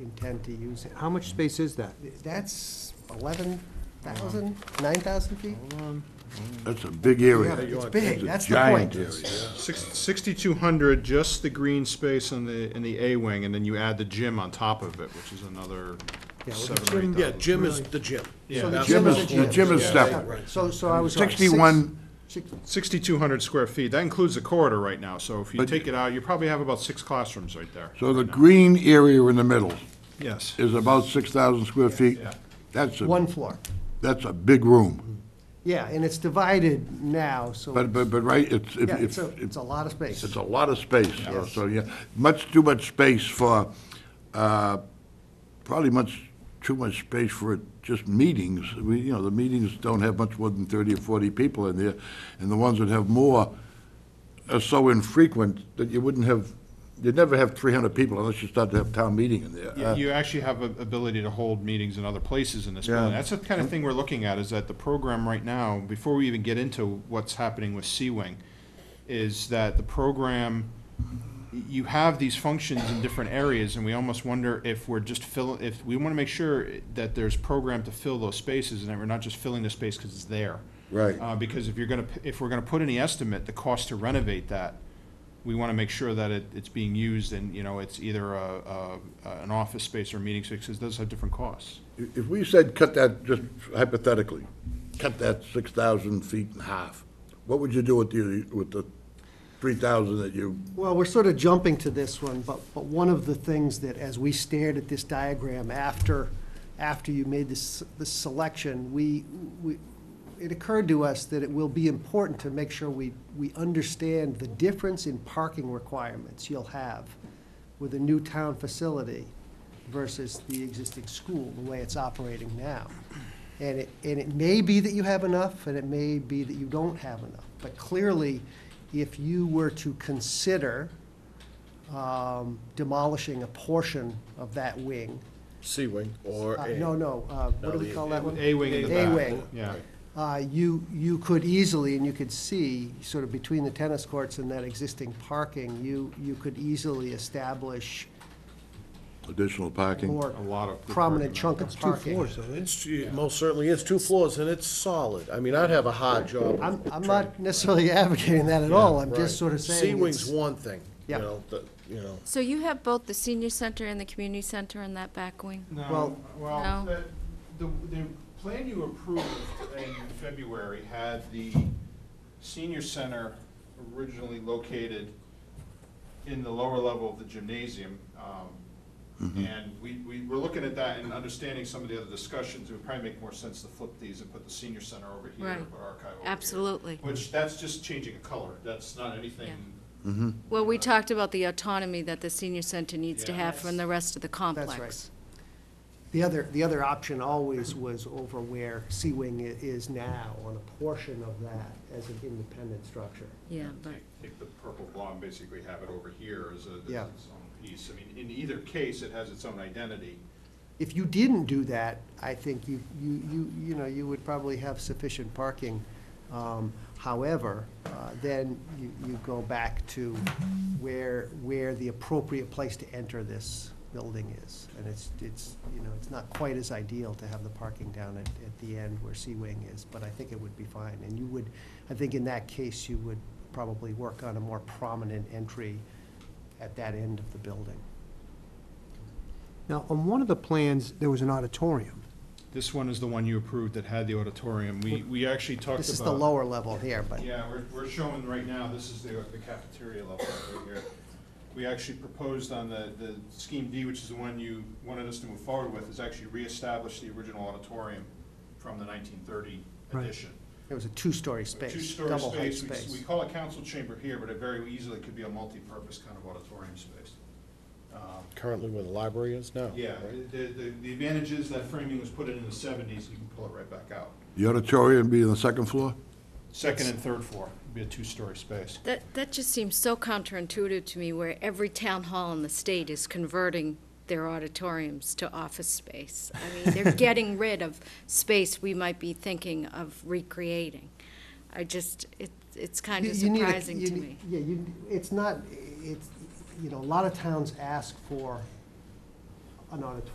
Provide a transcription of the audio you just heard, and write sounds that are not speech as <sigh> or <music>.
intend to use it. How much space is that? That's 11,000, 9,000 feet? That's a big area. It's big, that's the Giant point. area. Six- 6,200, just the green space in the, in the A wing, and then you add the gym on top of it, which is another Yeah, well, the seven or eight thousand. Yeah, Jim is the Jim. Yeah, So the that's Jim the is, the gym is separate. Right. So, so I was. right, six- 61, six- 6,200 square feet. That includes the corridor right now, so if you But- take it out, you probably have about six classrooms right there. so the green area in the middle Yes. is about 6,000 square feet. Yeah. That's One a, floor. that's a big room. Yeah, and it's divided now, so. But, but, but right, it's, Yeah, it's if- a, if, it's a lot of space. it's a lot of space, so- so, yeah, much too much space for, uh, probably much, too much space for just meetings. We, you know, the meetings don't have much more than 30 or 40 people in there, and the ones that have more are so infrequent that you wouldn't have, you'd never have 300 people unless you start to have town meeting in there. You- Uh, You actually have a ability to hold meetings in other places in this building. Yeah. That's the kind of thing we're looking at, is that the program right now, before we even get into what's happening with C-Wing, is that the program, you have these functions in different areas, and we almost wonder if we're just fill, if, we want to make sure that there's program to fill those spaces, and that we're not just filling the space because it's there. Right. Uh, because if you're gonna, p- if we're gonna put any estimate, the cost to renovate that, we wanna make sure that it, it's being used and, you know, it's either a, a, a- an office space or meeting space, 'cause those have different costs. Uh, If we said cut that, just hypothetically, cut that 6,000 feet in half, what would you do with the, with the 3,000 that you Well, we're sort of jumping to this one, but, but one of the things that, as we stared at this diagram after, after you made this, this selection, we, we, it occurred to us that it will be important to make sure we, we understand the difference in parking requirements you'll have with a new town facility versus the existing school, the way it's operating now. And it, and it may be that you have enough, and it may be that you don't have enough. But clearly, if you were to consider um, demolishing a portion of that wing, C wing or uh, A. no, no, uh, what do we the- call that one? A wing in the A back. wing. Yeah. Uh, You, you could easily, and you could see, sort of between the tennis courts and that existing parking, you, you could easily establish Additional parking? more A lot of good prominent parking, chunk of It's two parking. floors, though, isn't it? It's, it most certainly is, two floors, and it's solid. I mean, I'd have a hard job. I'm, I'm not necessily <laughs> advocating that at all, I'm just sort of saying. C wing's it's- one thing, you Yeah. know, the, you know. So you have both the senior center and the community center in that back wing? No, Well- well, No. the, the, the plan you approved in February had the senior center originally located in the lower level of the gymnasium. um, And we, we were looking at that and understanding some of the other discussions, it would probably make more sense to flip these and put the senior center over here, Right. but archive over here. Absolutely. Which, that's just changing a color, that's not anything, Well, we talked about the autonomy that the senior center needs to Yeah. have from the rest of the right. complex. The other, the other option always was over where Sea Wing i- is now, on a portion of that as an independent structure. Yeah, but, take take the purple blob and basically have it over here as a, Yeah. as its own piece. I mean, in either case, it has its own identity. If you didn't do that, I think you, you, you, you know, you would probably have sufficient parking. Um, However, uh, then you, you go back to where, where the appropriate place to enter this building is. And it's, it's, you know, it's not quite as ideal to have the parking down at, at the end where Sea Wing is, but I think it would be fine. And you would, I think in that case, you would probably work on a more prominent entry at that end of the building. Now, on one of the plans, there was an auditorium. This one is the one you approved that had the auditorium. We, we actually talked about. This is the lower level here, but. Yeah, we're, we're showing right now, this is the the cafeteria level right here. We actually proposed on the, the Scheme D, which is the one you wanted us to move forward with, is actually reestablish the original auditorium from the nineteen thirty Right. edition. It was a two-story A space, Two-story double height space, we, we space. call it council chamber here, but it very easily could be a multi-purpose kind of auditorium space. Um, Currently where the library is now. Yeah, right? the, the, the advantage is that framing was put in in the seventies, you can pull it right back out. The auditorium be on the second floor? Second and third floor, would be a two-story space. that, that just seems so counterintuitive to me, where every town hall in the state is converting their auditoriums to office space. I <laughs> mean, they're getting rid of space we might be thinking of recreating. I just, it, it's kind You- of you need a- surprising you to need- me. Yeah, you, it's not, it's, you know, a lot of towns ask for an auditorium